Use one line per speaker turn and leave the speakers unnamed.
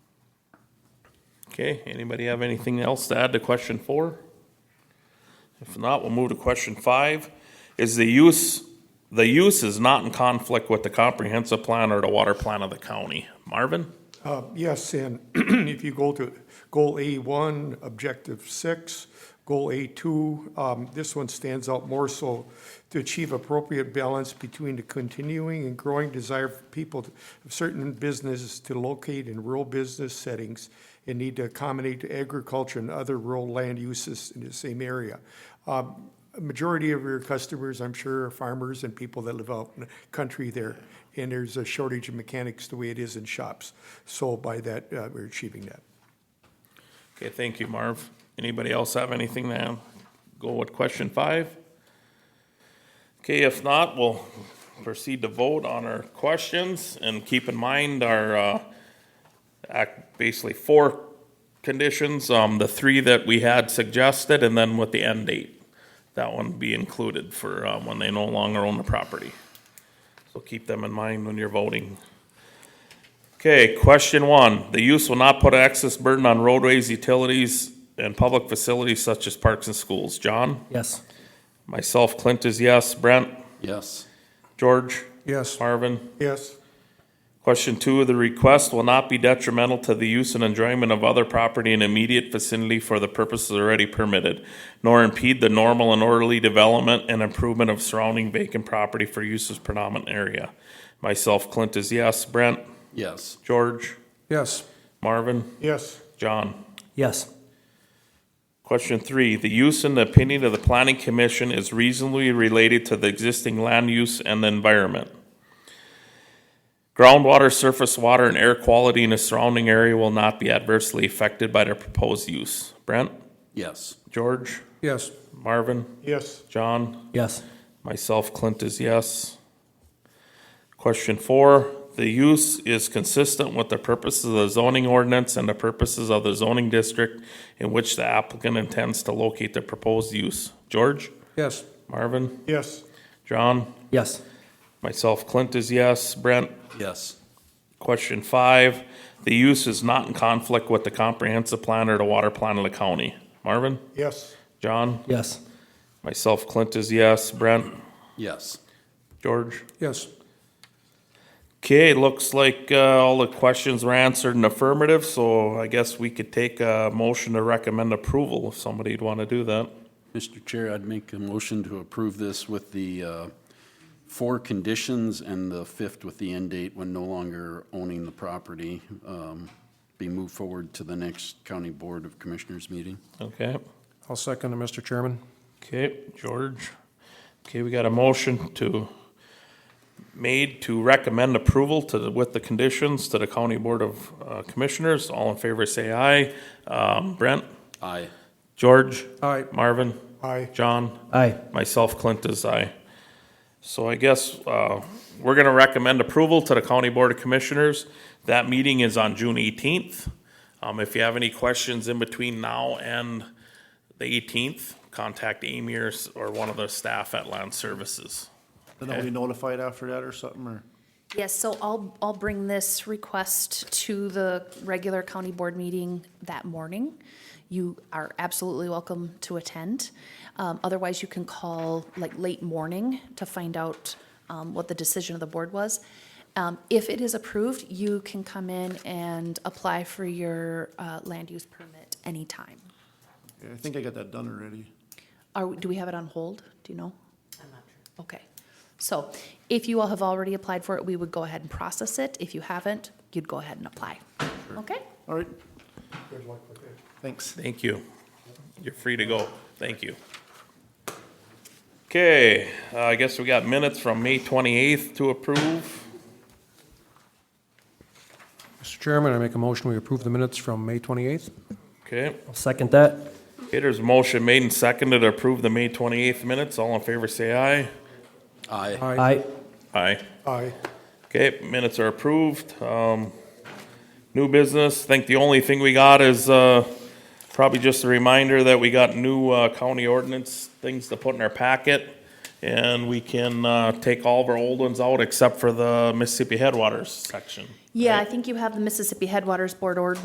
Okay, anybody have anything else to add to question four? If not, we'll move to question five. Is the use, the use is not in conflict with the comprehensive plan or the water plan of the county? Marvin?
Uh, Yes, and if you go to goal A1, objective six, goal A2, um, this one stands out more so to achieve appropriate balance between the continuing and growing desire for people, to- of certain businesses to locate in rural business settings and need to accommodate agriculture and other rural land uses in the same area. Um, a majority of your customers, I'm sure, are farmers and people that live out in the country there. And there's a shortage of mechanics the way it is in shops. So by that, uh, we're achieving that.
Okay, thank you, Marv. Anybody else have anything to add? go with question five? Okay, if not, we'll proceed to vote on our questions and keep in mind our, uh, act, basically four conditions, um, the three that we had suggested and then with the end date. That one be included for, um, when they no longer own the property. So keep them in mind when you're voting. Okay, question one, the use will not put access burden on roadways, utilities, and public facilities such as parks and schools. John?
Yes.
Myself, Clint is yes. Brent?
Yes.
George?
Yes.
Marvin?
Yes.
Question two, the request will not be detrimental to the use and enjoyment of other property in immediate vicinity for the purposes already permitted, nor impede the normal and orderly development and improvement of surrounding vacant property for uses predominant area. Myself, Clint is yes. Brent?
Yes.
George?
Yes.
Marvin?
Yes.
John?
Yes.
Question three, the use and the opinion of the planning commission is reasonably related to the existing land use and the environment. Groundwater, surface water, and air quality in the surrounding area will not be adversely affected by the proposed use. Brent,
Yes.
George,
Yes.
Marvin,
Yes.
John?
Yes.
Myself, Clint is yes. Question four, the use is consistent with the purposes of the zoning ordinance and the purposes of the zoning district in which the applicant intends to locate the proposed use. George,
Yes.
Marvin,
Yes.
John,
Yes.
myself, Clint is yes. Brent,
Yes.
question five, the use is not in conflict with the comprehensive plan or the water plan of the county. Marvin,
Yes.
John,
Yes.
myself, Clint is yes. Brent,
Yes.
George?
Yes.
Okay, looks like uh, all the questions were answered in affirmative, so I guess we could take a motion to recommend approval if somebody'd want to do that.
Mr. Chair, I'd make a motion to approve this with the uh, four conditions and the fifth with the end date when no longer owning the property um, be moved forward to the next County Board of Commissioners meeting.
Okay,
I'll second it, Mr. Chairman.
okay, George. Okay, we got a motion to, made to recommend approval to, the- with the conditions to the County Board of uh, Commissioners. All in favor, say aye. Um, Brent,
Aye.
George,
Aye.
Marvin,
Aye.
John?
Aye.
Myself, Clint is aye. So I guess uh, we're going to recommend approval to the County Board of Commissioners. That meeting is on June 18th. Um, If you have any questions in between now and the 18th, contact Amy or s- or one of the staff at Land Services.
Then I'll be notified after that or something, or?
Yes, so I'll, I'll bring this request to the regular county board meeting that morning. You are absolutely welcome to attend. Um, otherwise, you can call like late morning to find out, um, what the decision of the board was. Um, if it is approved, you can come in and apply for your, uh, land use permit anytime.
I think I got that done already.
Are, we- do we have it on hold? Do you know? I'm not sure. Okay. So if you all have already applied for it, we would go ahead and process it. If you haven't, you'd go ahead and apply. Okay?
All right. Thanks.
Thank you. You're free to go. Thank you. Okay, uh, I guess we got minutes from May 28th to approve.
Mr. Chairman, I make a motion, we approve the minutes from May 28th.
Okay.
I'll second that.
Okay, there's a motion made and seconded to approve the May 28th minutes. All in favor, say aye.
Aye.
Aye.
Aye.
Aye.
Okay, minutes are approved. Um, New business, I think the only thing we got is uh, probably just a reminder that we got new uh, county ordinance things to put in our packet. And we can uh, take all of our old ones out except for the Mississippi Headwaters section.
Yeah, I think you have the Mississippi Headwaters Board order